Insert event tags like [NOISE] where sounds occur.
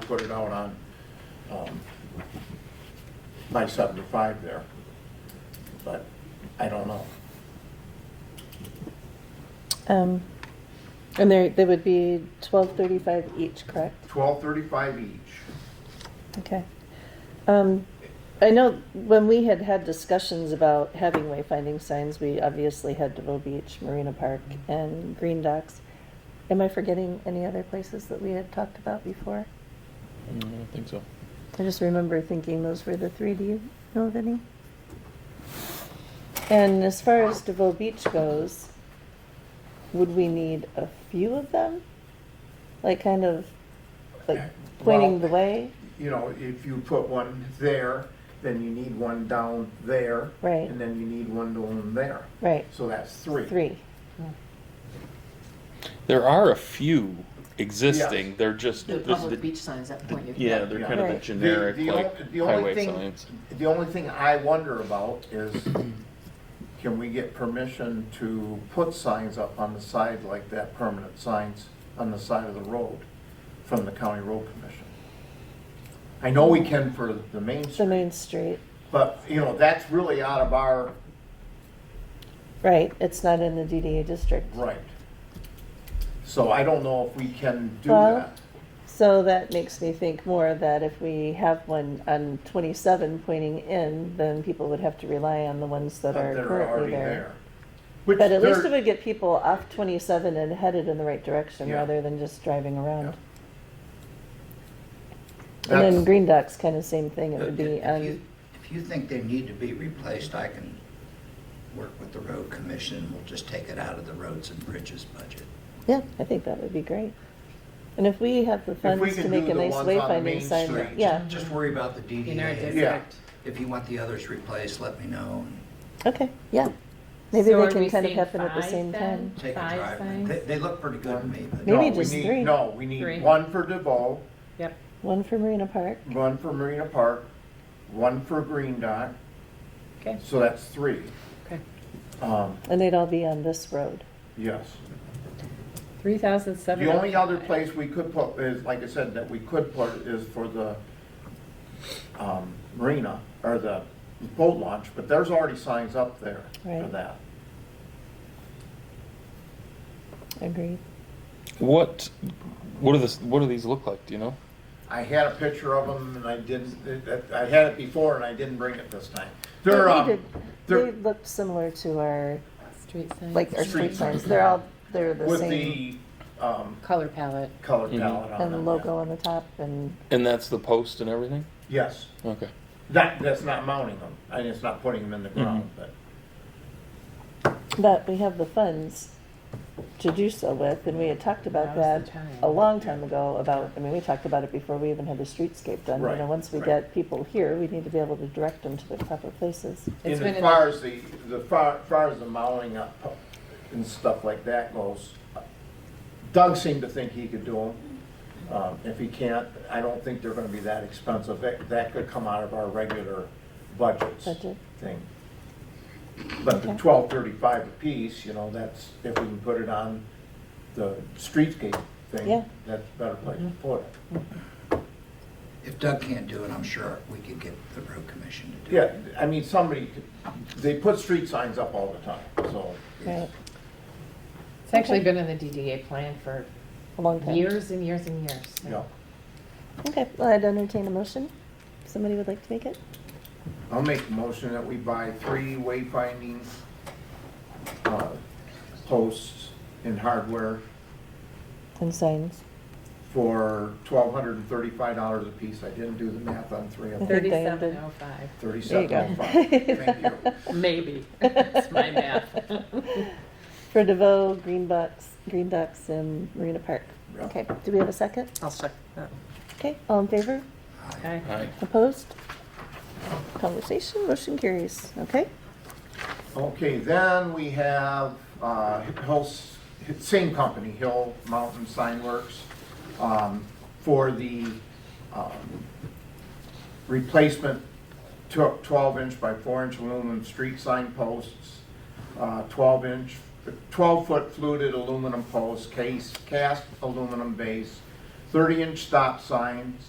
put it out on, um, by seventy-five there. But I don't know. Um, and there, they would be twelve thirty-five each, correct? Twelve thirty-five each. Okay. Um, I know when we had had discussions about having wayfinding signs, we obviously had DeVoe Beach, Marina Park, and Green Docks. Am I forgetting any other places that we had talked about before? Mm, I don't think so. I just remember thinking those were the three. Do you know of any? And as far as DeVoe Beach goes, would we need a few of them? Like kind of like pointing the Well- way? You know, if you put one there, then you need one down there. Right. And then you need one down there. Right. So that's three. Three. There are a few existing, they're just, The this- public the- beach signs at Point Euclid. yeah, they're kind of the Right. The- generic, the on- like the only highway thing- signs. The only thing I wonder about is, can we get permission to put signs up on the side like that, permanent signs on the side of the road from the county road commission? I know we can for the main The street, main street. but, you know, that's really out of our Right. It's not in the DDA district. right. So I don't know if we can do Well- that. So that makes me think more that if we have one on 27 pointing in, then people would have to rely on the ones that but are they're currently already there. Which But at least they're- it would get people off 27 and headed in the right direction Yeah. rather than just driving around. And That's- then Green Dock's kind of same thing. It would be um, If you- on, If you think they need to be replaced, I can work with the road commission, and we'll just take it out of the roads and bridges budget. yeah, I think that would be great. And if we have the we funds to can make do a the nice ones on Main wayfinding sign, Street, that- yeah, Just worry about the In our DDA. Yeah. district. If you want the others replaced, let me know. okay, yeah. Maybe So they are can we kind of saying happen at the five same then? time. and Take a Five drive. signs? They, they look pretty good to me, No, but Maybe we just need- three. No, we need Three. one for DeVoe, Yep. One for Marina Park. one for Marina Park, one for Green Dot, Okay. so that's three. Okay. Um, And they'd all be on this road. yes. Three thousand seven. The only other place we could put is, like I said, that we could put is for the, um, marina, or the boat launch, but there's already signs up there for Right. that. Agreed. What, what are this, what do these look like, do you know? I had a picture of them and I didn't, it- it- I had it before and I didn't bring it this time. They're, They um, did- They they're looked similar to our, Street signs. like our Street street signs. signs. They're all, they're the with same. the, um, Color palette. color Mhm. palette on them. And the yeah. logo on the top and, And that's the post and everything? Yes. Okay. That, that's not mounting them, and it's not putting them in the ground, but, but we have the funds to do so with. And we had talked about Now's that the time. a long time ago about, I mean, we talked about it before we even had the streetscape done. You Right, know, once we right. get people here, we need to be able to direct them to the proper places. and It's been as in far the- as the, the far, far as the mounting up and stuff like that goes, Doug seemed to think he could do them. Um, if he can't, I don't think they're gonna be that expensive, that, that could come out of our regular budgets Budget. thing. But the Okay. twelve thirty-five apiece, you know, that's, if we can put it on the streetscape Yeah. Mm-hmm. thing, that's a better place to put it. if Doug can't do it, I'm sure we could get the road commission to do it. Yeah, I mean, somebody, could- they put street signs up all the time, so, Right, It's actually been in the DDA plan for a long time. years and years and years. you know. Okay, well, I'd entertain a motion. Somebody would like to make it? I'll make a motion that we buy three wayfinding uh, posts and hardware And signs. for twelve hundred and thirty-five dollars apiece. I didn't do the math on three of them. think they Thirty-seven oh five. There you Thirty-seven go. oh five. [LAUGHS] Thank you. [LAUGHS] Maybe. It's my math. For DeVoe, Green Bucks, Green Ducks, and Marina Park. Yeah. Okay, do we have a second? I'll check that. Okay, all in favor? Okay. All right. Opposed? Conversation, motion carries, okay? Okay, then we have, uh, Hill's, same company, Hill Mountain Sign Works, um, for the, um, replacement tw- twelve inch by four inch aluminum street sign posts, uh, twelve inch, twelve foot fluted aluminum posts, case, cast aluminum base, thirty inch stop signs,